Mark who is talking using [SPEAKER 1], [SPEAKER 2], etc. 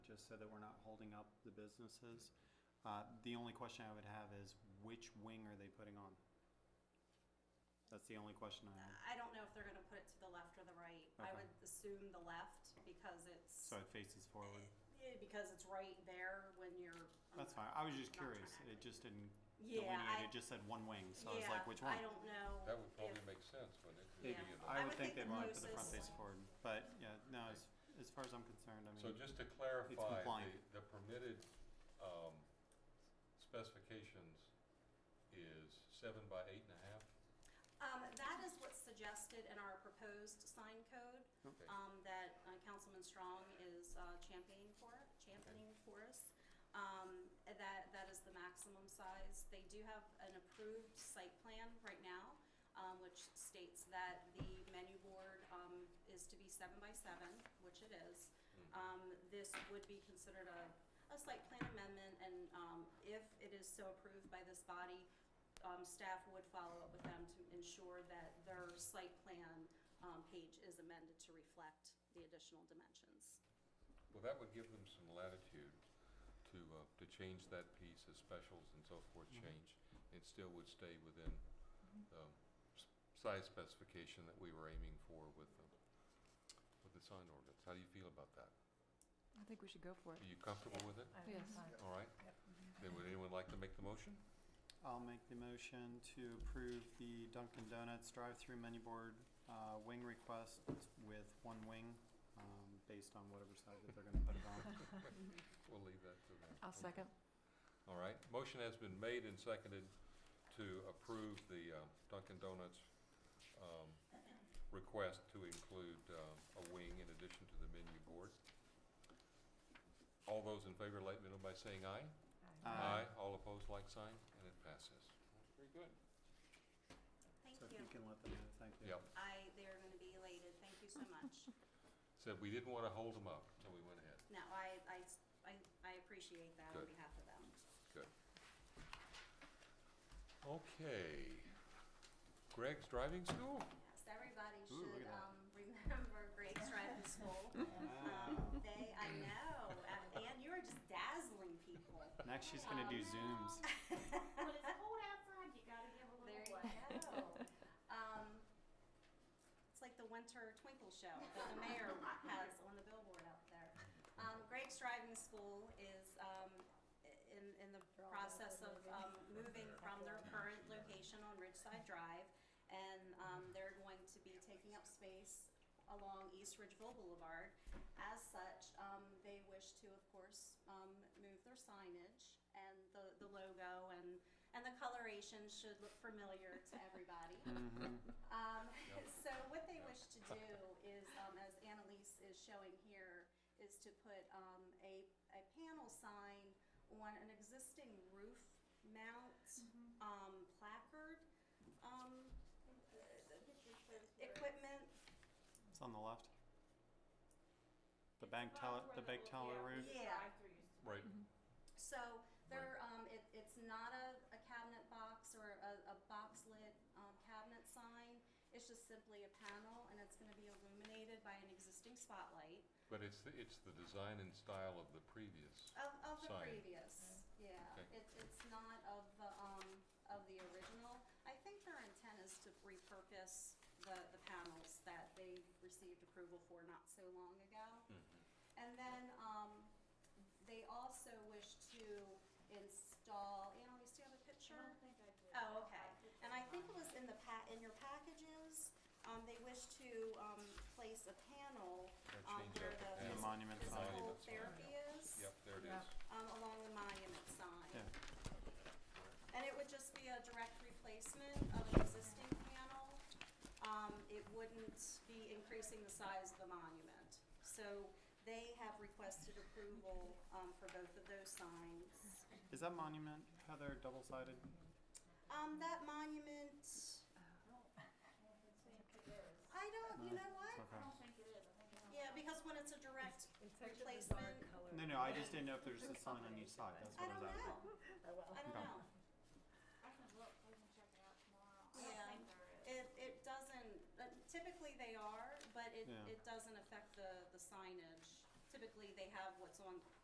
[SPEAKER 1] just so that we're not holding up the businesses. Uh, The only question I would have is which wing are they putting on? That's the only question I have.
[SPEAKER 2] I don't know if they're gonna put it to the left or the right. I
[SPEAKER 1] Okay.
[SPEAKER 2] would assume the left because it's,
[SPEAKER 1] So it faces forward.
[SPEAKER 2] eh, because it's right there when you're. I'm
[SPEAKER 1] That's
[SPEAKER 2] not-
[SPEAKER 1] fine. I was just
[SPEAKER 2] I'm not trying
[SPEAKER 1] curious.
[SPEAKER 2] to-
[SPEAKER 1] It just didn't
[SPEAKER 2] Yeah,
[SPEAKER 1] delineate.
[SPEAKER 2] I-
[SPEAKER 1] It just said one wing, so I was
[SPEAKER 2] Yeah,
[SPEAKER 1] like, which one?
[SPEAKER 2] I don't know.
[SPEAKER 3] That would probably
[SPEAKER 2] if-
[SPEAKER 3] make sense, wouldn't
[SPEAKER 2] Yeah.
[SPEAKER 3] it? Maybe in the-
[SPEAKER 1] I would think
[SPEAKER 2] the
[SPEAKER 1] they'd want to put the front
[SPEAKER 2] mousse is-
[SPEAKER 1] face forward, but yeah, no, as, as far as I'm concerned, I
[SPEAKER 3] So
[SPEAKER 1] mean,
[SPEAKER 3] just to clarify,
[SPEAKER 1] compliant.
[SPEAKER 3] the, the permitted, um, specifications is seven by eight and a half?
[SPEAKER 2] Um, that is what's suggested in our proposed sign code,
[SPEAKER 3] Okay.
[SPEAKER 2] um, that uh, Councilman Strong is, uh, championing for, championing for us. Um, that, that is the maximum size. They do have an approved site plan right now, um, which states that the menu board, um, is to be seven by seven, which it is. Um, this would be considered a, a site plan amendment, and, um, if it is so approved by this body, um, staff would follow up with them to ensure that their site plan, um, page is amended to reflect the additional dimensions.
[SPEAKER 3] Well, that would give them some latitude to, uh, to change that piece as specials and so forth
[SPEAKER 1] Mhm.
[SPEAKER 3] change. It still would stay within
[SPEAKER 2] Mm-hmm.
[SPEAKER 3] the s- size specification that we were aiming for with the, with the sign ordinance. How do you feel about that?
[SPEAKER 4] I think we should go for it.
[SPEAKER 3] Are you comfortable with it?
[SPEAKER 4] Yes.
[SPEAKER 3] All right? Then would anyone like to make the motion?
[SPEAKER 1] I'll make the motion to approve the Dunkin' Donuts drive-through menu board, uh, wing request with one wing, um, based on whatever side that they're gonna put it on.
[SPEAKER 3] We'll leave that to them.
[SPEAKER 4] I'll second.
[SPEAKER 3] All right, motion has been made and seconded to approve the uh, Dunkin' Donuts um, request to include uh, a wing in addition to the menu board. All those in favor, let me know by saying aye.
[SPEAKER 1] Aye.
[SPEAKER 3] All opposed, like sign, and it passes. Very good.
[SPEAKER 2] Thank
[SPEAKER 1] So if
[SPEAKER 2] you.
[SPEAKER 1] you can let them know, thank you.
[SPEAKER 3] Yep,
[SPEAKER 2] I, they're gonna be elated, thank you so much.
[SPEAKER 3] said we didn't want to hold them up, so we went ahead.
[SPEAKER 2] No, I, I, I, I appreciate that on
[SPEAKER 3] Good.
[SPEAKER 2] behalf of them.
[SPEAKER 3] Good. Okay. Greg's Driving School?
[SPEAKER 2] Yes, everybody
[SPEAKER 1] Ooh, look
[SPEAKER 2] should,
[SPEAKER 1] at that.
[SPEAKER 2] um, remember Greg's Driving School.
[SPEAKER 1] Wow.
[SPEAKER 2] Um, they, I know, uh, Ann, you are just dazzling people.
[SPEAKER 1] Next, she's gonna do zooms.
[SPEAKER 5] When it's cold outside, you gotta give a
[SPEAKER 2] There
[SPEAKER 5] little play.
[SPEAKER 2] you go. Um, it's like the winter twinkle show that the mayor has on the billboard out there. Um, Greg's Driving School is, um, in, in the process of, um, moving from their current location on Ridgeside Drive. And, um, they're going to be taking up space along East Ridgeville Boulevard. As such, um, they wish to, of course, um, move their signage and the, the logo and, and the coloration should look familiar to everybody. Um, so what they wish to do is, um, as Annalise is showing here, is to put, um, a, a panel sign on an existing roof mount, um, placard, um, equipment
[SPEAKER 1] It's on the left. The bank teller, the bank teller roof.
[SPEAKER 2] Yeah.
[SPEAKER 3] Right.
[SPEAKER 2] So they're, um, it, it's not a, a cabinet box or a, a box lid, um, cabinet sign. It's just simply a panel and it's gonna be illuminated by an existing spotlight
[SPEAKER 3] But it's, the- it's the design and style of the previous.
[SPEAKER 2] of, of the
[SPEAKER 3] Sign.
[SPEAKER 2] previous, yeah.
[SPEAKER 3] Okay.
[SPEAKER 2] It, it's not of the, um, of the original. I think their intent is to repurpose the, the panels that they received approval for not so long ago. And then, um, they also wish to install, Annalise, do you have a picture? Oh, okay. And I think it was in the pa- in your packages, um, they wish to, um, place a panel,
[SPEAKER 3] Gotta
[SPEAKER 2] um,
[SPEAKER 3] change
[SPEAKER 2] where
[SPEAKER 3] out the
[SPEAKER 2] the
[SPEAKER 3] panel.
[SPEAKER 2] phys-
[SPEAKER 1] Monument sign.
[SPEAKER 2] physical
[SPEAKER 3] Monument sign,
[SPEAKER 2] therapy is,
[SPEAKER 3] Yep, there it
[SPEAKER 4] Yeah.
[SPEAKER 3] is.
[SPEAKER 2] um, along the monument
[SPEAKER 1] Yeah.
[SPEAKER 2] sign. And it would just be a direct replacement of an existing panel. Um, it wouldn't be increasing the size of the monument. So they have requested approval, um, for both of those signs.
[SPEAKER 1] Is that monument, Heather, double-sided?
[SPEAKER 2] Um, that monument, I don't, you know what?
[SPEAKER 1] Okay.
[SPEAKER 2] Yeah, because when it's a direct replacement,
[SPEAKER 1] No, no, I just didn't know if there's a sign on each side, that's
[SPEAKER 2] I
[SPEAKER 1] what I
[SPEAKER 2] don't
[SPEAKER 1] was asking.
[SPEAKER 2] know. I don't
[SPEAKER 1] Okay.
[SPEAKER 2] know.
[SPEAKER 5] I can look, we can check it out tomorrow.
[SPEAKER 2] Yeah.
[SPEAKER 5] I don't think there is.
[SPEAKER 2] It, it doesn't, uh, typically they are, but it,
[SPEAKER 1] Yeah.
[SPEAKER 2] it doesn't affect the, the signage. Typically, they have what's on